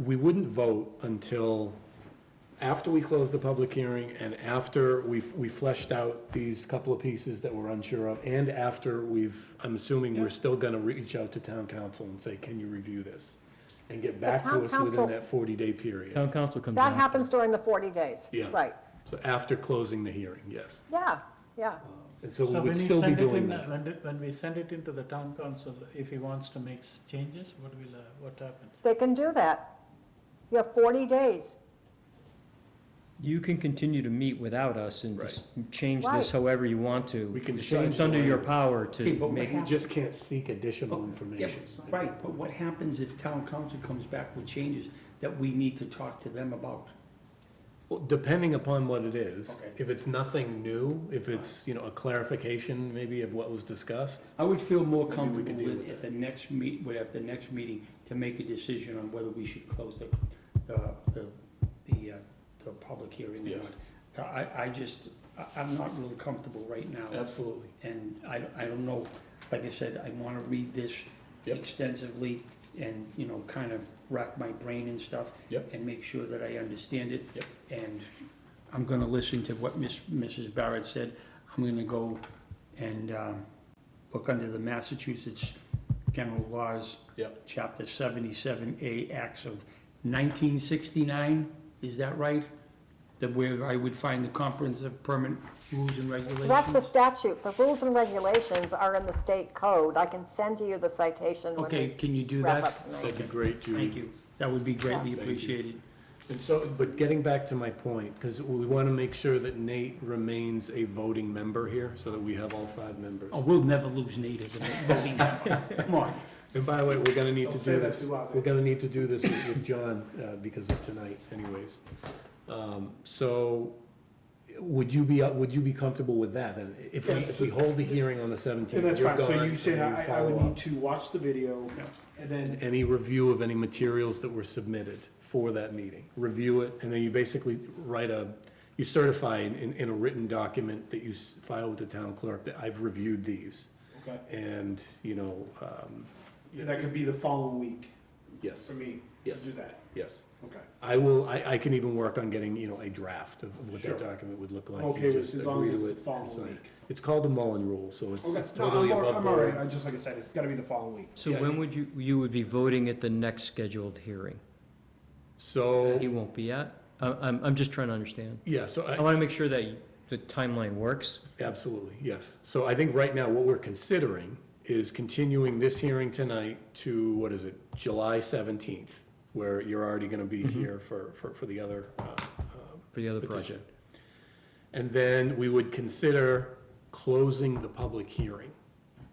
we wouldn't vote until after we closed the public hearing and after we've, we fleshed out these couple of pieces that we're unsure of, and after we've, I'm assuming we're still gonna reach out to town council and say, can you review this? And get back town to us council- within that forty-day period. Town council comes That out. happens during the 40 days. Yeah. Right, So after closing the hearing, yes. yeah, yeah. And so we So when would you still be send it doing in, that. when, when we send it into the town council, if he wants to make s- changes, what will, uh, what happens? They can do that. You have 40 days. You can continue to meet without us and just change Right. this however you want to. We can decide It's under to- your power Okay, to but make, we- We just can't seek Oh, additional Yep, information. Right, but what happens if town council comes back with changes that we need to talk to them about? Well, depending upon what it is, Okay. if it's nothing new, if it's, you know, a clarification maybe of what was discussed, I would feel Maybe more we could comfortable deal with with at the next meet, with at the next meeting to make a decision on whether we should close the, the, the, the, uh, the public hearing or Yes. not. I, I just, I, I'm not real comfortable right now. absolutely. And I, don't- I don't know, like I said, I wanna read this Yep. extensively and, you know, kind of rack my brain and stuff. Yep. And make sure that I understand it. Yep. And I'm gonna listen to what Miss, Mrs. Barrett said. I'm gonna go and, um, look under the Massachusetts General Laws. Yep. Chapter seventy-seven A, Acts of nineteen sixty-nine, is that right? That where I would find the comprehensive permit rules and regulations? That's the statute. The rules and regulations are in the state code. I can send you the citation when Okay, we can you do wrap up that? tonight. That'd be great, Judy. Thank you. That would be greatly Yeah. Thank you. appreciated. And so, but getting back to my point, because we want to make sure that Nate remains a voting member here, so that we have all five members. Oh, we'll never lose Nate as a voting member. Come on. And by the way, we're gonna need to Don't do say that this, too loud. we're gonna need to do this with with John, uh, because of tonight anyways. Um, So, would you be, uh, would you be comfortable with that, and if we, Yes. if we hold the hearing on the seventeenth? And that's fine, so you said I, I would need to watch the video, and then, Any review of any materials that were submitted for that meeting, review it, and then you basically write a, you certify in, in- in a written document that you s- file with the town clerk that I've reviewed these, okay, and, you know, um, and that could be the following week yes, for me to Yes. do that, yes. okay. I will, I, I can even work on getting, you know, a draft of of what that Sure. document would look like. I'm okay You with just it as long as agree it's to the it and following sign it. week. It's called the Mullen Rule, so it's, Okay, it's no, I'm, totally all- above I'm all right, board. I just, like I said, it's gotta be the following week. so Yeah, when you- would you, you would be voting at the next scheduled hearing? So, He won't be at? I- I'm, I'm just trying to understand. yeah, so I I, want to make sure that the timeline works. absolutely, yes. So I think right now what we're considering is continuing this hearing tonight to, what is it, July seventeenth, where you're already gonna be here for, for, for the other, uh, Mm-hmm. For the other petition. project. And then we would consider closing the public hearing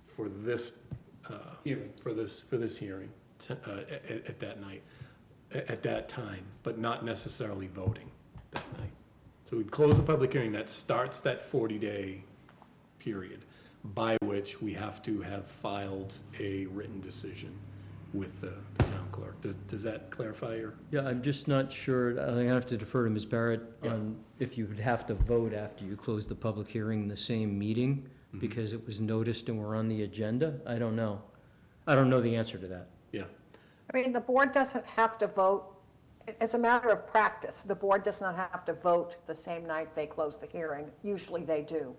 for this, uh, Hearing. for this, for this hearing, t- uh, at, at- at that night, a- at that time, but not necessarily voting that night. So we'd close the public hearing, that starts that 40-day period, by which we have to have filed a written decision with the the town clerk. Does, does that clarify your? Yeah, I'm just not sure, I think I have to defer to Ms. Barrett Yeah. on if you would have to vote after you close the public hearing in the same meeting, Mm-hmm. because it was noticed and we're on the agenda. I don't know. I don't know the answer to that. Yeah, I mean, the board doesn't have to vote, as a matter of practice, the board does not have to vote the same night they close the hearing. Usually they do.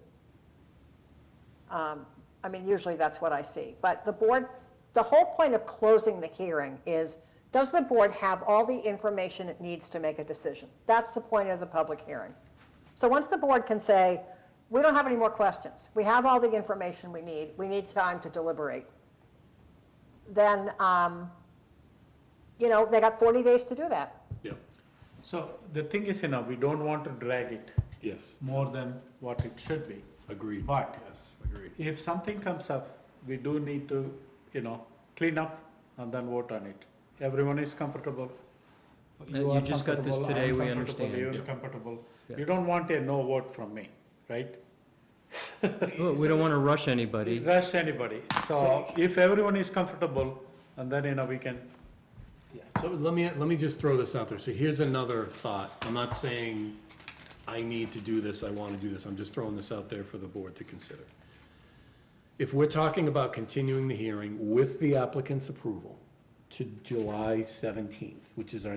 Um, I mean, usually that's what I see. But the board, the whole point of closing the hearing is, does the board have all the information it needs to make a decision? That's the point of the public hearing. So once the board can say, we don't have any more questions, we have all the information we need, we need time to deliberate, then, um, you know, they got 40 days to do that. yeah, So the thing is, you know, we don't want to drag it yes, more than what it should be. agreed. But Agreed. if something comes up, we do need to, you know, clean up and then vote on it. Everyone is comfortable. you are just got this comfortable, today, I'm we comfortable, understand. You're Yeah. comfortable. Yeah. You don't want a no vote from me, right? Well, We don't want to rush anybody. rush anybody. So if everyone is comfortable, and then, you know, we can, So let me, let me just throw this out there. So here's another thought. I'm not saying I need to do this, I want to do this. I'm just throwing this out there for the board to consider. If we're talking about continuing the hearing with the applicant's approval to July 17th, which is our